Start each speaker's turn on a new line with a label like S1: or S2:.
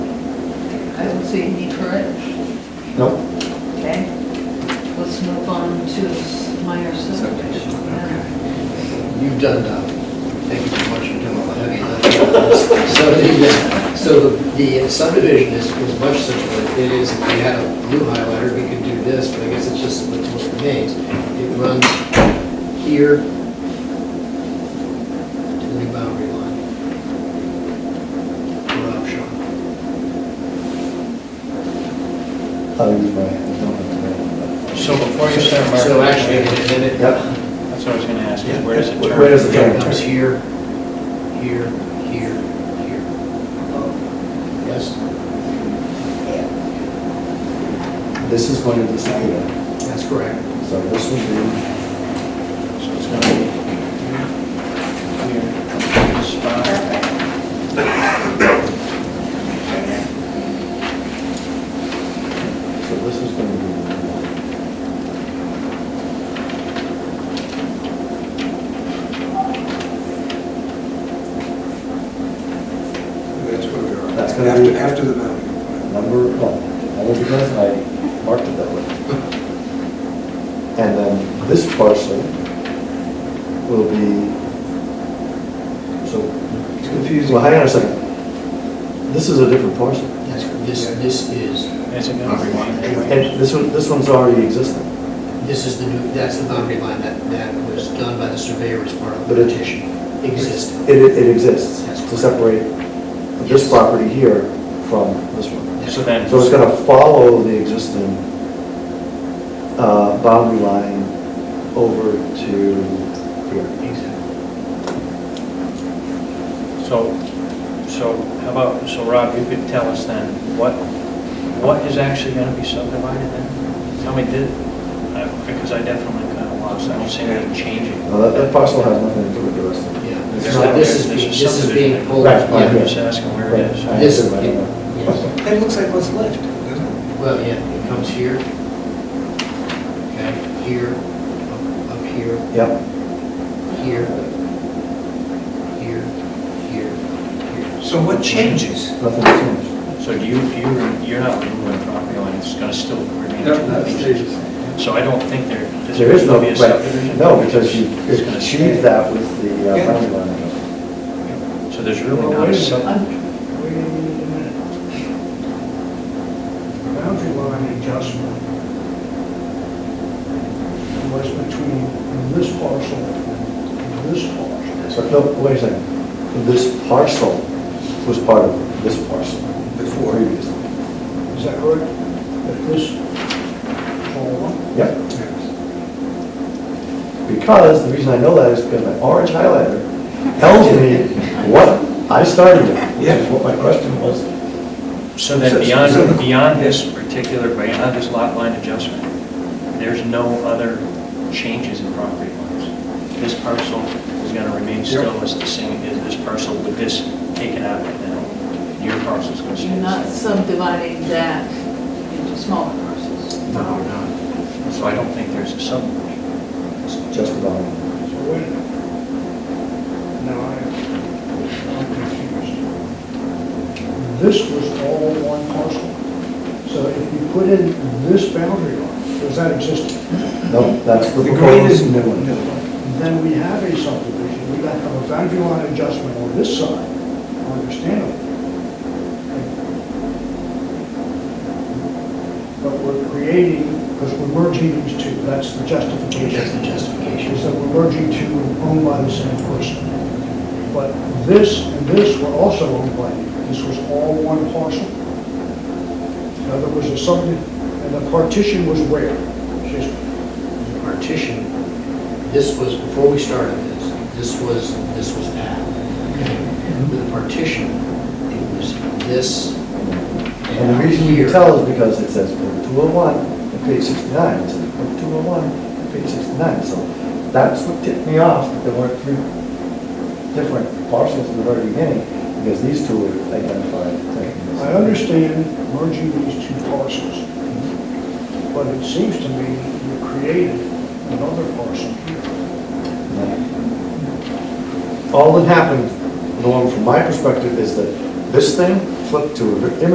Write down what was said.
S1: I don't see a need for it.
S2: Nope.
S1: Okay. Let's move on to s- minor subdivision. Yeah.
S3: You've done, uh, thank you so much for doing all the heavy lifting. So the, uh, so the- the subdivision is, is much simpler. It is, if we had a blue highlighter, we could do this, but I guess it's just what what remains. It runs here to the new boundary line. What I'm showing.
S2: I'll use my hand, don't have to.
S4: So before you start marking.
S3: So actually, and then it.
S2: Yep,
S4: That's what I was gonna ask, is where does it turn?
S2: Where does it turn?
S3: It comes here, here, here, here. Oh, Yes?
S2: this is going to decide it.
S3: That's correct.
S2: So this will be,
S4: So it's gonna be here, here, this spot.
S2: so this is going to be.
S5: That's where we are.
S2: That's gonna
S5: After-
S2: be-
S5: After the mountain.
S2: number, well, I will be honest, I marked it that way. And then this parcel will be, so,
S5: It's confusing.
S2: well, hang on a second. This is a different parcel.
S3: That's, this, this is,
S4: Is it gonna be one
S2: And
S4: anyway?
S2: this one, this one's already existing,
S3: this is the new, that's the boundary line that, that was done by the surveyor as part of the
S2: But it-
S3: petition. Existed.
S2: it, it exists
S3: That's
S2: to separate this
S3: Yes.
S2: property here from this one.
S4: So then,
S2: So it's gonna follow the existing, uh, boundary line over to here.
S3: Exactly.
S4: so, so how about, so Rob, you could tell us then, what, what is actually gonna be subdivided then? Tell me, did, I- because I definitely kinda lost, I don't see anything changing.
S2: Now, that, that parcel has nothing to do with the rest of it.
S3: Yeah.
S2: It's
S4: There's
S3: So
S2: not-
S4: not-
S3: this is,
S4: there's a
S3: being- this is
S4: subdivision.
S3: being pulled.
S2: Right,
S4: I'm
S3: yeah.
S4: just asking where it is.
S2: Right.
S3: This,
S2: I
S3: it-
S2: don't know.
S3: yes.
S5: That looks like what's left, doesn't it?
S3: well, yeah, it comes here. Okay, here, up up here,
S2: Yep,
S3: here, here, here, here.
S5: So what changes?
S2: nothing changed.
S4: So do you, you, you're not removing the property line, it's gonna still remain two pieces. So I don't think there, this
S2: There is no,
S4: be a
S2: right,
S4: subdivision.
S2: no, because you
S4: It's gonna stay.
S2: achieved that with the uh,
S5: Yeah.
S2: boundary line. adjustment.
S4: So there's really not a sub,
S1: I'm-
S5: Wait a minute. Boundary line adjustment was between this parcel and this parcel.
S2: So, no, wait a second, this parcel was part of this parcel
S5: Before.
S2: previously.
S5: Is that correct? That this whole,
S2: Yep, because the reason I know that is because my orange highlighter tells me what I started with, which is what my question was.
S4: so then beyond, beyond this particular, beyond this lot line adjustment, there's no other changes in property lines. This parcel is gonna remain still as the same, as this parcel with this taken out right now. Your parcel's gonna stay
S1: You're
S4: the
S1: not
S4: same.
S1: subdividing that into smaller parcels.
S4: No, we're not. So I don't think there's a subdivision.
S2: It's just about,
S5: so wait a minute. Now I, I'm confused. This was all one parcel. So if you put in this boundary line, does that exist?
S2: no, that's the
S5: The green is
S2: proposed new one.
S5: Then we have a subdivision, we got to have a boundary line adjustment on this side, understandable. But we're creating, because we're merging these two, that's
S3: That's
S5: the
S3: the
S5: justification,
S3: justification.
S5: is that we're merging two owned by the same person. But this and this were also owned by, this was all one parcel. Now, there was a subdivision, and the partition was where? Just
S3: the partition, this was, before we started this, this was, this was that. With the partition, it was this
S2: And the reason you can tell is because it says Book 201 at page 69, it says Book 201 at oh page 69. So that's what tipped me off, that there weren't three different parcels in the very beginning, because these two were identified.
S5: I understand merging these two parcels, but it seems to me you created another parcel here.
S2: All that happened, Norm, from my perspective, is that this thing flipped to an image